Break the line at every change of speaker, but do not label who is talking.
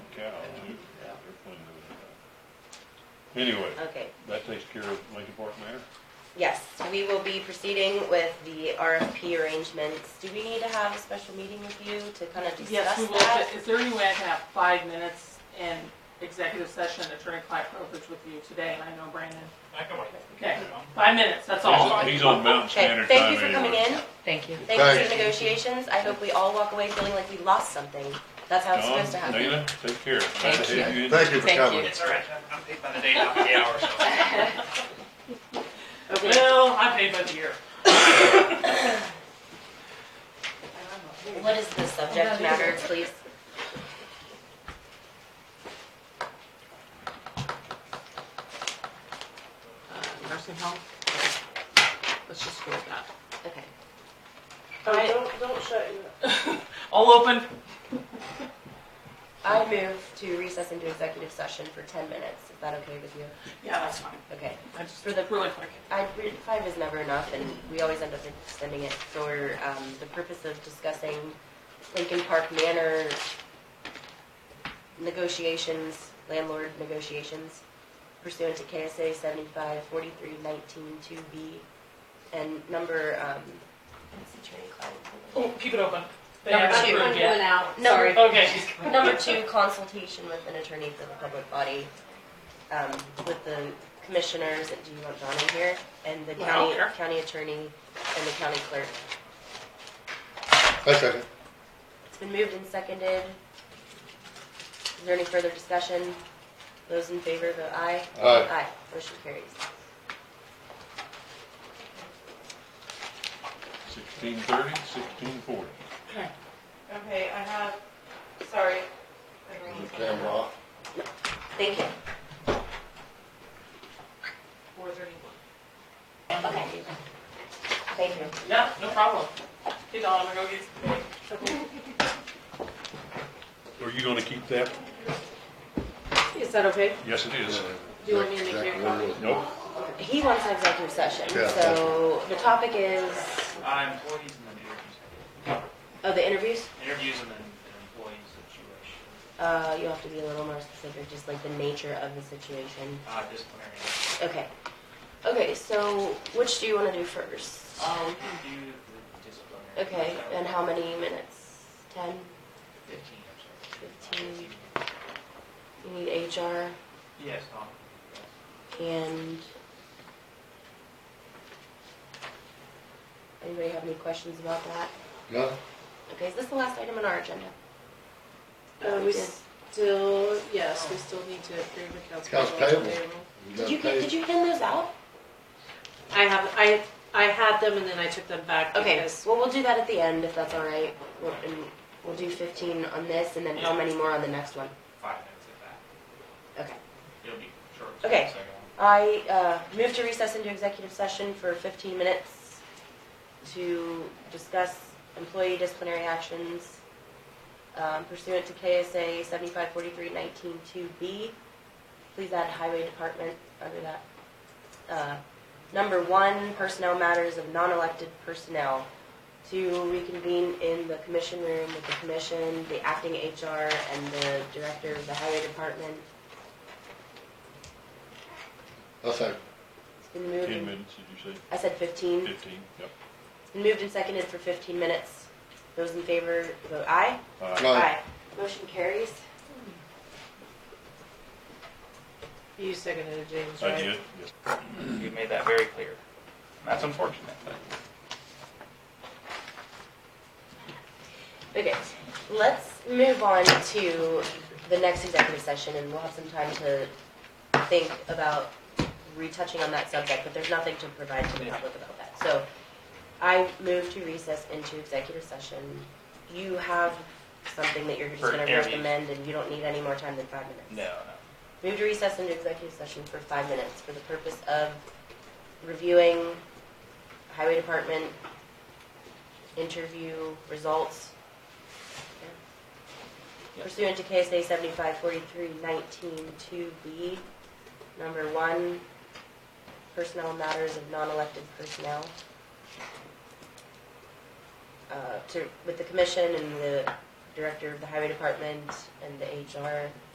Anyway,
Okay,
that takes care of Lincoln Park Manor.
yes, we will be proceeding with the RFP arrangements. Do we need to have a special meeting with you to kind of
Yes,
discuss
we will.
that?
Is there any way I can have five minutes in executive session attorney-client privilege with you today? And I know Brandon.
I can wait.
Okay, five minutes, that's all.
He's- He's on Mountain
Okay,
Standard Time
thank you for coming
anyway.
in.
Thank you.
Thank you for
Thank
the negotiations. I hope we all walk away feeling like we lost something. That's how it's supposed to
Don,
happen.
Dana, take care. Nice to
you.
have you in.
Thank you for
Thank you.
coming.
It's all right, I'm- I'm paid by the day, not by the hour, so.
Well, I paid by the year.
What is the subject matter, please?
Uh, Nursing home? Let's just go with that.
Okay.
Oh, don't, don't shut your,
All open?
I move to recess into executive session for ten minutes. Is that okay with you?
Yeah, that's fine.
Okay.
I just,
For the-
really quick.
I, we- five is never enough, and we always end up extending it for, um, the purpose of discussing Lincoln Park Manor negotiations, landlord negotiations pursuant to KSA seventy-five forty-three nineteen two B and number, um, what's the attorney client?
Oh, keep it open. They
Number
haven't
two.
approved yet.
out,
Number-
Okay.
Number two, consultation with an attorney for the public body, um, with the commissioners, do you want John in here? And the
Yeah, I don't
county,
care.
county attorney and the county clerk.
I second.
It's been moved and seconded. Is there any further discussion? Those in favor, vote aye.
Aye.
Aye, motion carries.
Sixteen thirty, sixteen forty.
okay, I have, sorry. I don't know.
The camera off.
Thank you.
Four thirty-one.
Okay. Thank you.
Yeah, no problem. Hey, Dawn, I'm gonna go get some.
Are you gonna keep that?
Is that okay?
Yes, it is.
Do you want me to make you a
Exactly.
copy?
Nope.
He wants an executive session,
Yeah,
so the topic is,
Uh, employees and then interviews.
oh, the interviews?
Interviews and then and employees situation,
Uh, you'll have to be a little more specific, just like the nature of the situation.
uh, disciplinary.
Okay. Okay, so which do you want to do first?
Uh, we can do the disciplinary.
Okay, and how many minutes? Ten?
Fifteen, I'm sorry.
Fifteen. You need HR
Yes, um, Tom.
and... Anybody have any questions about that?
No?
Okay, is this the last item on our agenda?
Uh, we
Yeah.
still, yes, we still need to approve accounts
Accounts
payable.
payable.
Did you, get- did you hand those out?
I have, I, I had them and then I took them back
Okay,
because
well, we'll do that at the end if that's all right. We'll- and We'll do fifteen on this and then how many more on the next one?
Five minutes at that.
Okay.
It'll be short.
Okay.
Second one.
I uh, move to recess into executive session for 15 minutes to discuss employee disciplinary actions um, pursuant to KSA 7543192B. Please add highway department under that. Uh, Number one, personnel matters of non-elected personnel. To reconvene in the commission room with the commission, the acting HR, and the director of the highway department.
I second.
It's been moved.
Ten
and-
minutes, did you say?
I said 15.
Fifteen, yep.
It's been moved and seconded for 15 minutes. Those in favor, vote aye.
Aye.
No.
Motion carries.
you seconded it, James,
I
right?
did, yes.
You made that very clear. That's unfortunate, but.
Okay, let's move on to the next executive session, and we'll have some time to think about retouching on that subject, but there's nothing to provide to the public about that. So I move to recess into executive session. You have something that you're just
For
gonna
interviews.
recommend, and you don't need any more time than five minutes.
No, no.
Move to recess into executive session for five minutes for the purpose of reviewing highway department interview results pursuant to KSA seventy-five forty-three nineteen two B, number one, personnel matters of non-elected personnel. Uh, to, with the commission and the director of the highway department and the HR